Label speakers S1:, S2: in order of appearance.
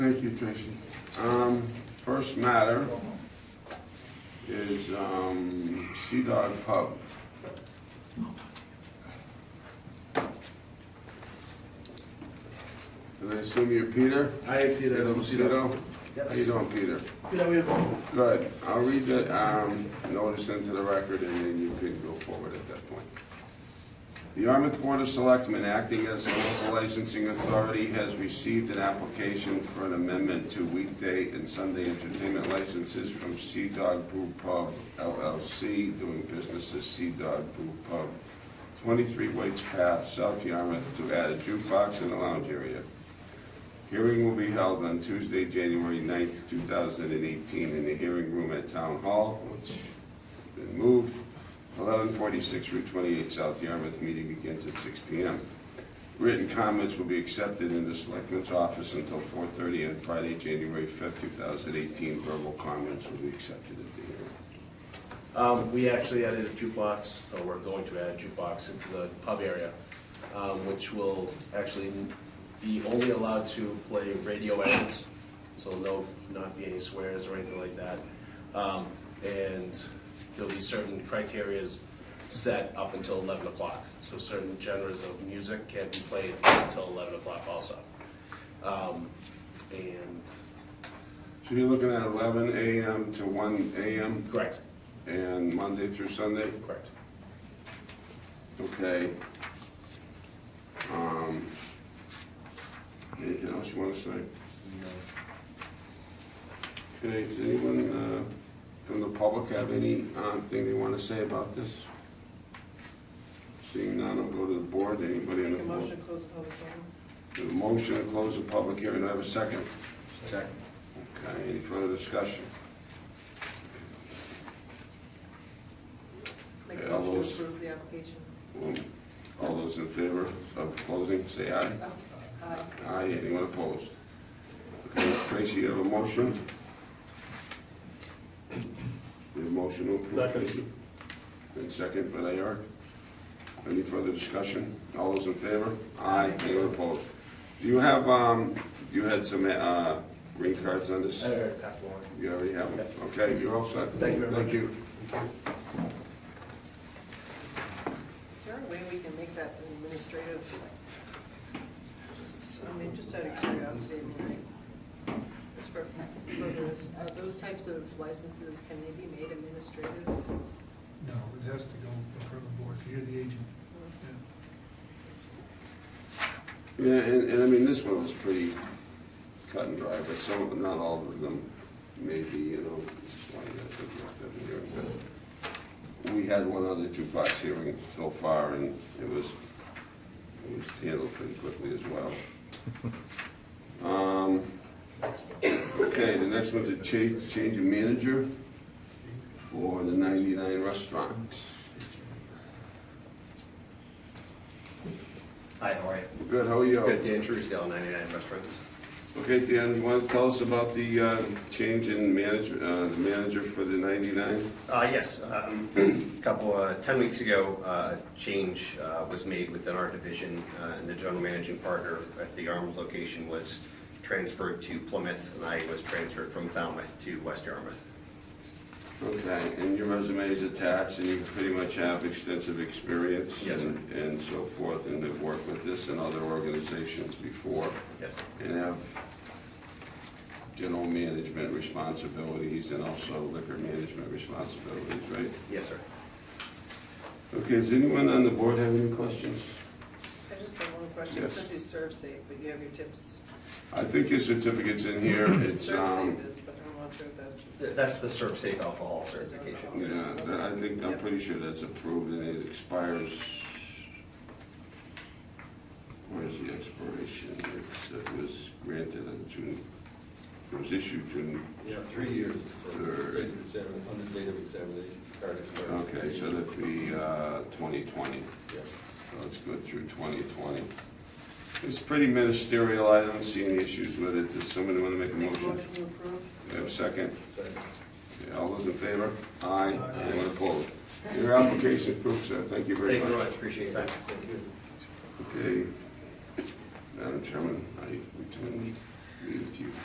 S1: Thank you, Tracy. Um, first matter is, um, Sea Dog Pub. And I assume you're Peter?
S2: Hi, Peter.
S1: Peter Lucido? How you
S2: Yes.
S1: doing, Peter?
S2: Peter, we have-
S1: Good. I'll read the, um, notice into the record and then you can go forward at that point. The Yarmouth Board of Selectmen, acting as the local licensing authority, has received an application for an amendment to weekday and Sunday entertainment licenses from Sea Dog Brew Pub LLC, doing business as Sea Dog Brew Pub, 23 Waits Path, South Yarmouth, to add a jukebox and a lounge area. Hearing will be held on Tuesday, January 9th, 2018, in the hearing room at Town Hall, which has been moved, 1146 Route 28, South Yarmouth. Meeting begins at 6 PM. Written comments will be accepted in the Selectmen's office until 4:30 on Friday, January 5th, 2018. Verbal comments will be accepted at the hearing.
S2: Um, we actually added a jukebox, or we're going to add a jukebox into the pub area, um, which will actually be only allowed to play radio ads, so there'll not be any swears or anything like that. Um, and there'll be certain criterias set up until eleven o'clock, so certain genres of music can't be played until eleven o'clock also. Um, and,
S1: So you're looking at 11 AM to 1 AM,
S2: correct,
S1: and Monday through Sunday?
S2: correct.
S1: Okay. Um, Anything else you want to say? Okay, does anyone uh, from the public have any um, thing they want to say about this? Seeing none, I'll go to the board, anybody on the
S3: Make a
S1: board?
S3: motion to close the public hearing.
S1: The motion to close the public hearing, do I have a second?
S2: Second.
S1: Okay, any further discussion?
S3: Make
S1: Yeah,
S3: a
S1: all
S3: motion
S1: those-
S3: to approve the application.
S1: Um, All those in favor of closing, say aye.
S3: Oh, aye.
S1: Aye, anyone opposed? Okay, Tracy, you have a motion? You have a motion to approve?
S2: Second.
S1: And second by Layard. Any further discussion? All those in favor? Aye, anyone opposed? Do you have, um, you had some, uh, green cards on this?
S2: pass the warrant.
S1: You already have them? Okay, you're all set?
S2: Thank you very much.
S1: Thank you.
S3: Is there a way we can make that administrative, just, I mean, just out of curiosity, I mean, like, just for, for those, uh, those types of licenses, can they be made administrative?
S4: No, it has to go in front of the board, you're the agent. Yeah.
S1: Yeah, and, and I mean, this one was pretty cut and dry, but some, of- not all of them, maybe, you know, just wanted to think about that here, but We had one other jukebox hearing so far, and it was, it was handled pretty quickly as well. Um, Okay, the next one's a change, change of manager for the ninety-nine restaurant.
S5: Hi, how are you?
S1: Good, how are you?
S5: Good, Dan Truesdale, 99 Restaurants.
S1: Okay, Dan, you want to tell us about the uh, change in manager, uh, the manager for the 99?
S5: Uh, Yes, a couple, uh, 10 weeks ago, uh, a change uh, was made within our division, uh, and the general managing partner at the Yarmouth location was transferred to Plymouth, and I was transferred from Falmouth to West Yarmouth.
S1: Okay, and your resume is attached, and you pretty much have extensive experience
S5: Yes, sir.
S1: and and so forth, and have worked with this and other organizations before,
S5: Yes,
S1: and have general management responsibilities and also liquor management responsibilities, right?
S5: yes, sir.
S1: Okay, does anyone on the board have any questions?
S3: I just have one question, it
S1: Yes.
S3: says you serve safe, but you have your tips.
S1: I think your certificate's in here, it's,
S3: Serve
S1: um,
S3: safe is, but I'm not sure if that's.
S5: That's the Serve Safe Alcohol Certification.
S1: Yeah, that- I think, I'm pretty sure that's approved and it expires. Where's the expiration? It's- It was granted on June, it was issued June,
S6: Yeah, three years, it says,
S1: Third.
S6: date of examin- on the date of examination, card expiration.
S1: okay, so that'd be uh, 2020.
S6: Yeah.
S1: So it's good through 2020. It's pretty ministerial, I don't see any issues with it. Does somebody want to make a
S3: Make a
S1: motion?
S3: motion to approve?
S1: We Have a second?
S6: Second.
S1: Okay, All those in favor? Aye. Anyone opposed? Your application approved, sir. Thank you very
S5: Thank you
S1: much.
S5: very much, appreciate that.
S6: Thank you.
S1: Okay. Madam Chairman, I return the meeting to you.